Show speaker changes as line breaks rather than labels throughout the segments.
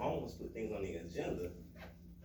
always put things on the agenda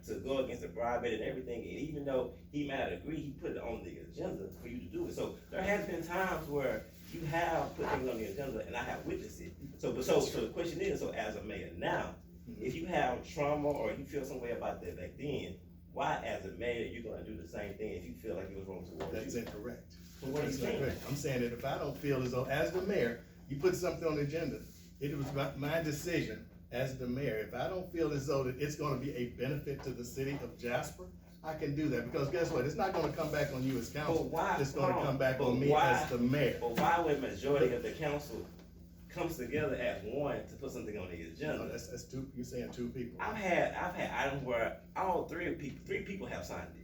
to go against the bribe bid and everything, and even though he might not agree, he put it on the agenda for you to do it. So there has been times where you have put things on the agenda, and I have witnessed it. So, but so, so the question is, so as a mayor now,
Mm-hmm.
if you have trauma or you feel some way about that back then, why as a mayor, you're gonna do the same thing if you feel like it was wrong towards
That's
you?
incorrect.
But what are you
That's
saying?
incorrect. I'm saying that if I don't feel as though, as the mayor, you put something on the agenda, it was my- my decision as the mayor, if I don't feel as though that it's gonna be a benefit to the city of Jasper, I can do that, because guess what, it's not gonna come back on you as
But
council,
why?
it's gonna
hold
come back
but
on me
why-
as the mayor.
But why would majority of the council comes together as one to put something on the
No,
agenda?
that's, that's two, you're saying two people.
I've had, I've had items where all three of people, three people have signed it.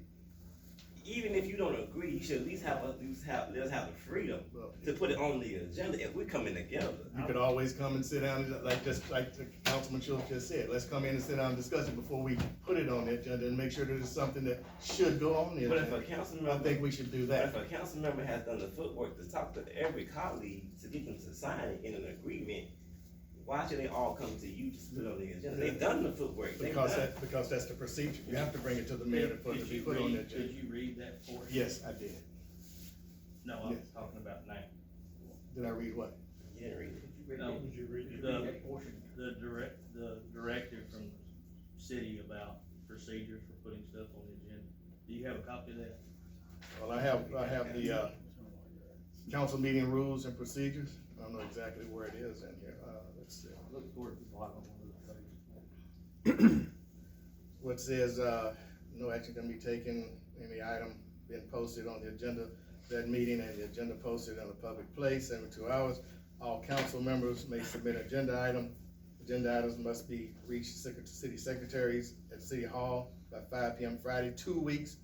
Even if you don't agree, you should at least have, at least have, let us have the freedom
Well,
to put it on the agenda if we're coming together.
You could always come and sit down, and just- like, just like the Councilman Schultz just said, let's come in and sit down and discuss it before we put it on the agenda and make sure that it's something that should go on the
But if a
agenda.
council
I
member
think we should do
But
that.
if a council member has done the footwork to talk to every colleague to get them to sign in an agreement, why should they all come to you to put on the agenda? They've done the footwork, they've
Because
done.
that, because that's the procedure, you have to bring it to the mayor for it to
Did
be
you
put on
read-
the agenda.
Did you read that for? him?
Yes, I did.
No, I was
Yes.
talking about now.
Did I read what?
You didn't read it.
No.
Would you read it?
The The direct, the directive from city about procedures for putting stuff on the agenda. Do you have a copy of that?
Well, I have, I have the, uh, council meeting rules and procedures. I don't know exactly where it is in here. Uh, let's see.
Look toward the bottom of the page.
What says, uh, no action can be taken, any item being posted on the agenda, that meeting and the agenda posted in a public place every two hours. All council members may submit agenda item. Agenda items must be reached secret, city secretaries at City Hall by five P M Friday, two weeks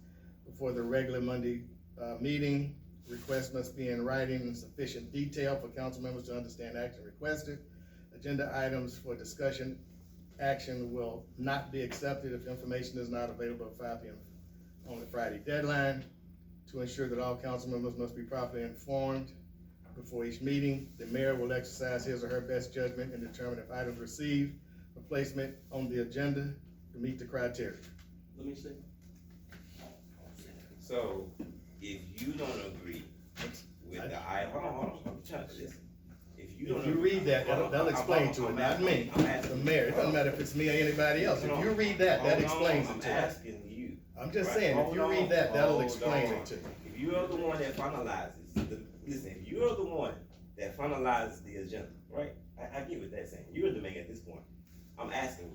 before the regular Monday, uh, meeting. Requests must be in writing in sufficient detail for council members to understand action requested. Agenda items for discussion action will not be accepted if information is not available at five P M on the Friday deadline. To ensure that all council members must be properly informed before each meeting, the mayor will exercise his or her best judgment and determine if items received for placement on the agenda to meet the criteria.
Let me see.
So, if you don't agree with the I, hold on, hold on, I'm trying to listen. If you don't.
If you read
Hold
that, that'll,
on,
that'll
I'm-
explain
I'm-
to it,
I'm
not me,
asking- I'm asking-
the mayor, it doesn't matter if it's me or anybody else, if you read that, that
Hold on,
explains
I'm
it to you.
asking you.
I'm just saying, if you read that, that'll explain it to you.
If you are the one that finalizes, the, listen, if you are the one that finalizes the agenda, right? I, I get what that's saying. You're the mayor at this point. I'm asking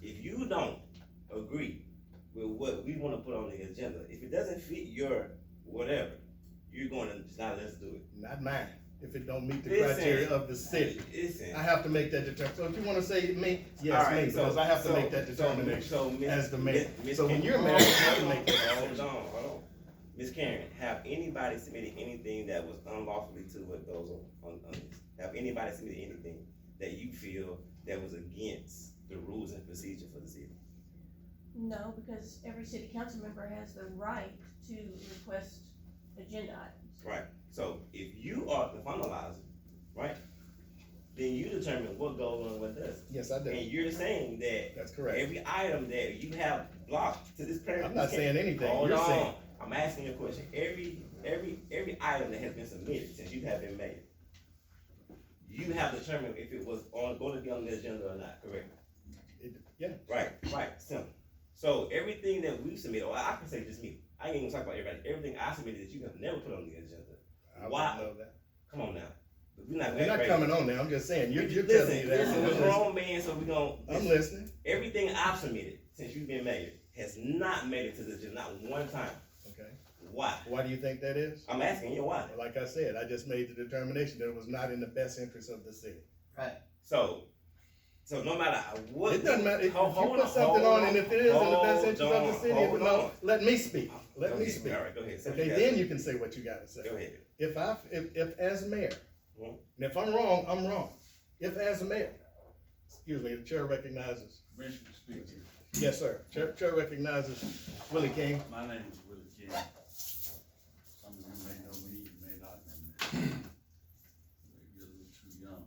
you, if you don't agree with what we wanna put on the agenda, if it doesn't fit your whatever, you're gonna just not let us do it.
Not mine, if it don't meet the
Listen.
criteria of the city.
Listen.
I have to make that determination. So if you wanna say me, yes, me,
Alright, so-
because I have to
so-
make that
so-
determination.
so Miss-
as the mayor.
Miss-
So when you're
Hold
mayor, you have to
on,
make that
Hold
decision.
on, hold on. Ms. Karen, have anybody submitted anything that was unlawfully to what goes on, on, on this? Have anybody submitted anything that you feel that was against the rules and procedure for the city?
No, because every city council member has the right to request agenda items.
Right, so if you are the finalizer, right, then you determine what goes on, what doesn't.
Yes, I do.
And you're saying that
That's correct.
every item that you have blocked to this prayer.
I'm not saying anything.
Hold
You're saying,
on, I'm asking you a question, every, every, every item that has been submitted since you have been made, you have determined if it was on, gonna be on the agenda or not, correct?
it- yeah,
Right, right, simple. So everything that we submitted, or I can say just me, I ain't even talk about everybody, everything I submitted that you have never put on the agenda,
I
Why?
wouldn't know that.
come on now. We're not.
You're not
crazy.
coming on there. I'm just saying, you're, you're telling me
Listen,
that.
listen,
I'm
we're
listening.
grown man, so we gonna.
I'm listening.
Everything I've submitted since you've been mayor has not made it to the agenda, not one time.
Okay.
Why?
Why do you think that is?
I'm asking you why.
Well, Like I said, I just made the determination that it was not in the best interest of the city.
So, so no matter what.
It doesn't matter. If you
Hold- hold
put
on,
something
hold
on and if it is in the best interest of the
hold
city,
on,
if no,
hold
let me speak. Let
Go
me
ahead.
speak.
All right, go ahead. Say what
Okay,
you got.
then you can say what you gotta say.
Go ahead.
If I, if, if as mayor,
Mhm.
and if I'm wrong, I'm wrong. If as mayor, excuse me, the chair recognizes,
Commissioner speaking.
yes, sir, chair, chair recognizes Willie King.
My name is Willie King. Some of you may know me, you may not know me. Maybe You're a little too young.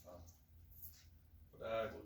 Uh, But I was